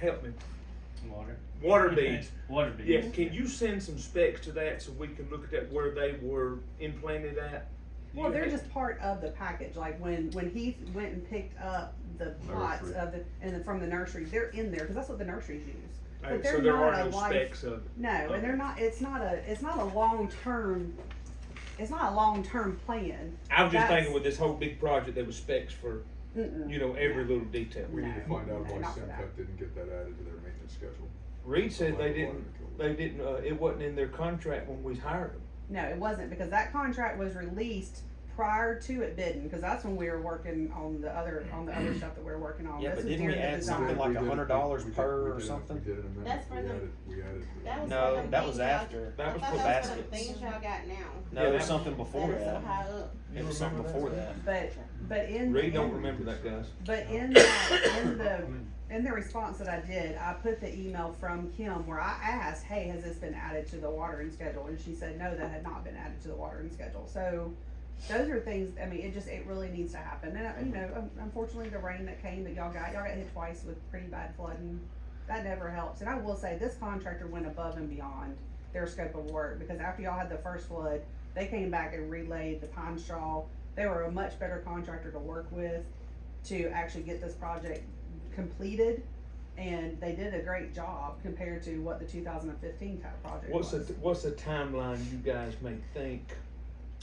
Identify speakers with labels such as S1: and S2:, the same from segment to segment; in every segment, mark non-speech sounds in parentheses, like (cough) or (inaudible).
S1: help me,
S2: Water.
S1: water beads.
S2: Water beads.
S1: Yeah, can you send some specs to that so we can look at that where they were implanted at?
S3: Well, they're just part of the package, like when, when he went and picked up the pots
S4: Nursery.
S3: of the, and then from the nursery, they're in there, cause that's what the nurseries use. But
S1: Alright, so
S3: they're
S1: there
S3: not
S1: are
S3: a
S1: no
S3: life-
S1: specs of it.
S3: No, and they're not, it's not a, it's not a long-term, it's not a long-term plan.
S1: I was just
S3: That's-
S1: thinking with this whole big project, there was specs for,
S3: Mm-mm.
S1: you know, every little detail.
S4: We need to
S3: No,
S4: find out
S3: no,
S4: why
S3: not for that.
S4: Semtech didn't get that added to their maintenance schedule.
S1: Reed said they
S4: Why the
S1: didn't,
S4: water
S1: they didn't, uh, it wasn't in their contract when we hired them.
S3: No, it wasn't, because that contract was released prior to it bidding, cause that's when we were working on the other, on the other stuff that we are working on.
S5: Yeah,
S3: This
S5: but
S3: was
S5: didn't we
S3: during the
S5: add
S3: design.
S5: something
S4: We
S5: like
S4: did- we
S5: $100
S4: did-
S5: per
S4: we
S5: or
S4: did-
S5: something?
S4: We did an amendment.
S6: That's for
S4: We
S6: the-
S4: added- We added. the-
S6: That was
S5: No,
S6: for the
S5: that was
S6: things y'all-
S5: after.
S6: I
S1: That was
S6: thought
S1: for
S6: that was for the
S5: baskets.
S6: things y'all got now.
S5: No,
S1: Yeah,
S5: it was
S1: that-
S5: something before
S6: That is so
S5: that.
S6: high up.
S5: It was something
S1: remember
S5: before that.
S3: But, but in.
S1: Reed don't
S3: in-
S1: remember that, guys.
S3: But in the, in the, in the response that I did, I put the email from Kim where I asked, hey, has this been added to the watering schedule? And she said, no, that had not been added to the watering schedule. So those are things, I mean, it just, it really needs to happen. And, uh, you know, un- unfortunately, the rain that came that y'all got, y'all got hit twice with pretty bad flooding. That never helps. And I will say, this contractor went above and beyond their scope of work because after y'all had the first flood, they came back and relayed the pine straw. They were a much better contractor to work with to actually get this project completed. And they did a great job compared to what the two thousand and fifteen type project
S1: What's
S3: was.
S1: the, what's the timeline you guys may think,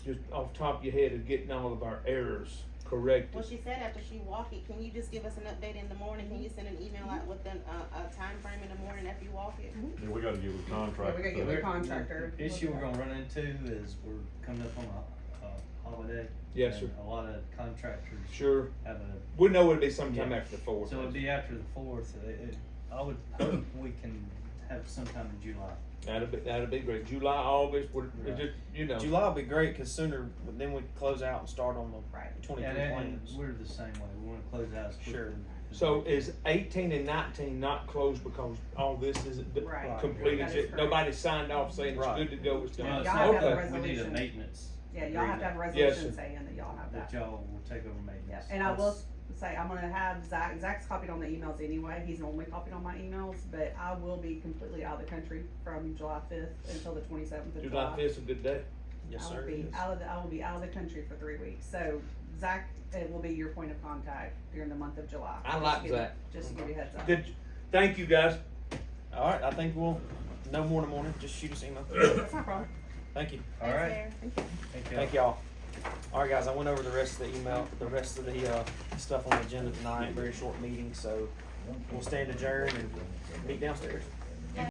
S1: just off the top of your head, of getting all of our errors
S6: Well,
S1: corrected?
S6: she said after she walked it, can you just give us an update in the morning? Can you send an email out with an, uh, a time frame in the morning after you walk it?
S7: Yeah, we gotta get with
S3: Yeah,
S7: contract.
S3: we gotta get
S7: so that-
S3: with the contractor.
S2: The issue we're gonna run into is we're coming up on a, a holiday.
S1: Yes, sir,
S2: and A lot of contractors
S1: sure.
S2: have a,
S1: We know it'd be sometime
S2: Yeah.
S1: after the fourth.
S2: so it'd be after the fourth. It, it, I would
S1: (coughs)
S2: hope we can have sometime in July.
S1: That'd be, that'd be great. July, August, we're, we're
S2: Right.
S1: just, you know.
S5: July will be great because sooner then we close out and start on the
S3: Right.
S5: 23
S2: And, and
S5: plans.
S2: we're the same way. We wanna close out as
S5: Sure.
S2: quickly. as
S1: So
S2: we can.
S1: is eighteen and nineteen not closed because all this isn't d-
S3: Right.
S1: completed
S3: That is
S1: yet?
S3: correct.
S1: Nobody signed off saying it's
S5: Right.
S1: good to go, it's
S2: No,
S1: done?
S2: it's
S3: Y'all have
S2: not-
S3: to have
S1: Okay.
S3: a res-
S2: We need a
S3: resolution.
S2: maintenance.
S3: Yeah, y'all have to have a
S2: agreement
S3: resolution
S1: sir.
S3: saying that y'all have
S2: That
S3: that.
S2: y'all will take over maintenance.
S3: Yep, and I will
S2: That's-
S3: say, I'm gonna have Zach, Zach's copied on the emails anyway, he's normally copied on my emails, but I will be completely out of the country from July fifth until the twenty-seventh of
S1: July
S3: July.
S1: fifth's a good day.
S5: yes,
S3: I will
S5: sir.
S3: be
S5: yes.
S3: out of the, I will be out of the country for three weeks, so Zach, it will be your point of contact during the month of July.
S1: I
S3: Just
S1: like
S3: give you-
S1: Zach.
S3: Just to give you a heads up.
S1: Good, thank you, guys.
S5: All right, I think we'll no more in the morning. Just shoot us an email.
S3: (coughs) That's not a problem.
S5: Thank you.
S2: All
S6: Thanks,
S2: right.
S6: Sarah.
S2: Thank y'all.
S5: Thank y'all. All right, guys. I went over the rest of the email, the rest of the uh, stuff on the agenda tonight. Very short meeting, so we'll stand adjourned and meet downstairs.